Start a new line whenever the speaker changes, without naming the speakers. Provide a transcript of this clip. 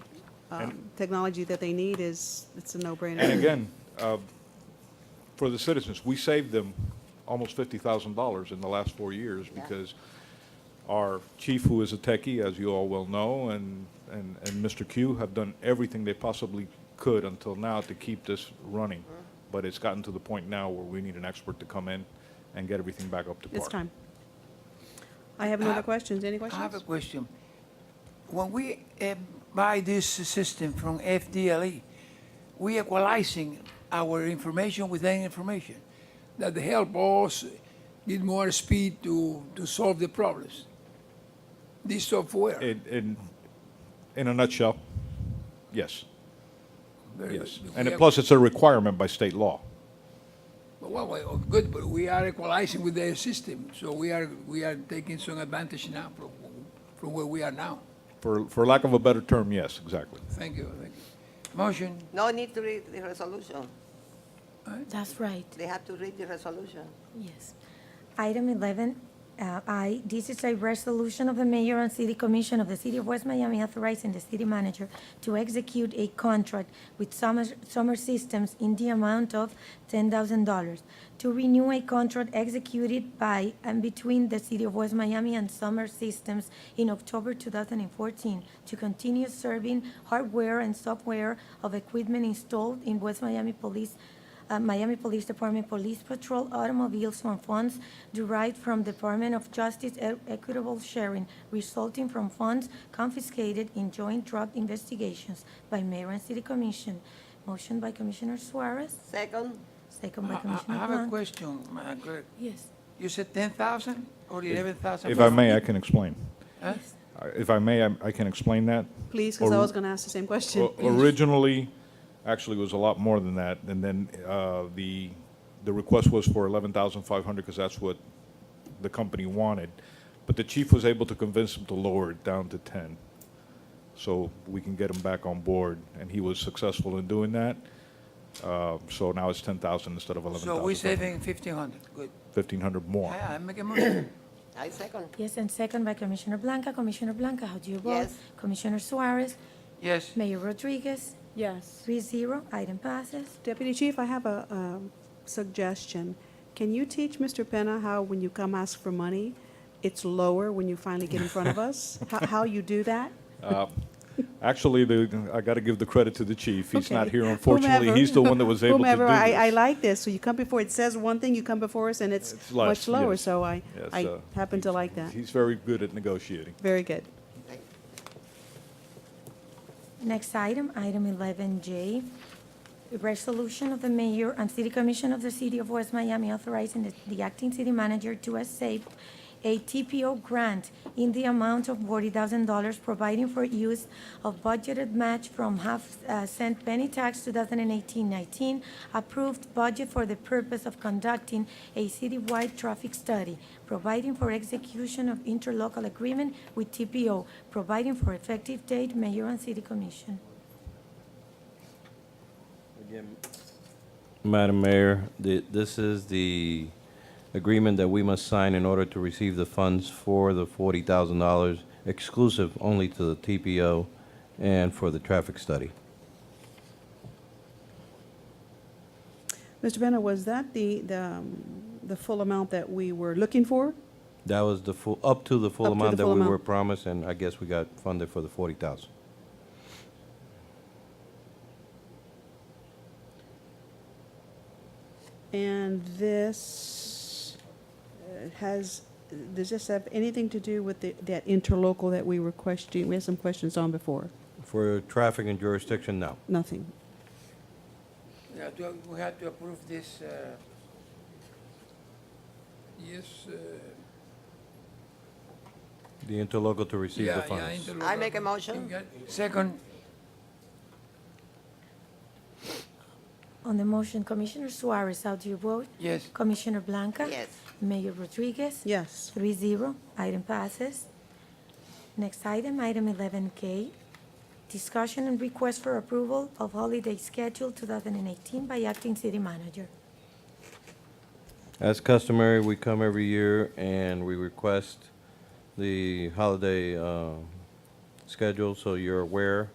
um, technology that they need is, it's a no-brainer.
And again, uh, for the citizens, we saved them almost fifty thousand dollars in the last four years because our chief, who is a techie, as you all well know, and, and, and Mr. Q have done everything they possibly could until now to keep this running. But it's gotten to the point now where we need an expert to come in and get everything back up to par.
It's time. I have no other questions. Any
I have a
questions?
question. When we eh, buy this system from FDLE, E, we equalizing our information with their information that help us get more speed to, to solve the problems. This software.
In, in, in a nutshell, yes,
very
yes.
good.
And
We
it- plus, it's a requirement by state law.
are- Well, well, oh, good, but we are equalizing with their system, so we are, we are taking some advantage now from, from where we are now.
For, for lack of a better term, yes, exactly.
Thank you, thank you. Motion,
No need to read the resolution.
That's right,
They have to read the resolution.
yes.
Item 11, uh, I, this is a resolution of the mayor and city commission of the city of West Miami authorizing the city manager to execute a contract with Summer, Summer Systems in the amount of $10,000 to renew a contract executed by and between the city of West Miami and Summer Systems in October 2014 to continue serving hardware and software of equipment installed in West Miami Police uh, Miami Police Department Police Patrol automobiles from funds derived from Department of Justice e- equitable sharing resulting from funds confiscated in joint drug investigations by Mayor and City Commission. Motion by Commissioner Suarez,
Second,
second by
I I- I
Commissioner
have a
Blanc.
question, Madam Clerk.
Yes,
You said ten thousand or eleven thousand?
If I may, I can explain.
Huh?
Uh, If I may, I I can explain that.
Please, because I was going to ask the same question.
O- Originally, actually, it was a lot more than that, and then uh, the, the request was for 11,500, because that's what the company wanted, but the chief was able to convince him to lower it down to 10, so we can get him back on board, and he was successful in doing that, Uh, so now it's 10,000 instead of
So
11,500,
we're saving fifteen hundred, good.
1,500 more.
I, I make a motion.
I second.
Yes, and second by Commissioner Blanca. Commissioner Blanca, how do you vote?
Yes.
Commissioner Suarez,
Yes,
Mayor Rodriguez,
Yes.
three zero, item passes.
Deputy Chief, I have a um, suggestion. Can you teach Mr. Penna how, when you come ask for money, it's lower when you finally get in front of us? How- How you do that?
Actually, the, I got to give the credit to the chief. He's not
Okay.
here, unfortunately.
Whomever-
He's the one that was able to do this.
Whomever, I, I like this. So you come before, it says one thing, you come before us, and it's
It's less,
much lower.
yes.
So I,
Yes,
I
uh,
happen to
he's-
like that.
He's very good at negotiating.
Very good.
Next item, item 11J, a resolution of the mayor and city commission of the city of West Miami authorizing the- the acting city manager to accept a TPO grant in the amount of $40,000 providing for use of budgeted match from half uh, cent penny tax 2018-19 approved budget for the purpose of conducting a citywide traffic study, providing for execution of interlocal agreement with TPO, providing for effective date, mayor and city commission.
Madam Mayor, the- this is the agreement that we must sign in order to receive the funds for the $40,000, exclusive only to the TPO and for the traffic study.
Mr. Penna, was that the, the, um, the full amount that we were looking for?
That was the full, up to the
Up to
full
the
amount that
full
we
amount.
were promised, and I guess we got funded for the 40,000.
And this uh, has, does this have anything to do with the, that interlocal that we were questioning, we had some questions on before?
For traffic and jurisdiction, no.
Nothing.
Yeah, do- we have to approve this, uh, yes, uh,
The interlocal to receive the
yeah, yeah.
funds.
interlocal.
I make a motion.
Second,
On the motion, Commissioner Suarez, how do you vote?
yes,
Commissioner Blanca?
Yes.
Mayor Rodriguez?
Yes.
Three zero, item passes. Next item, item eleven K. Discussion and request for approval of holiday schedule two thousand and eighteen by acting city manager.
As customary, we come every year and we request the holiday uh, schedule, so you're aware.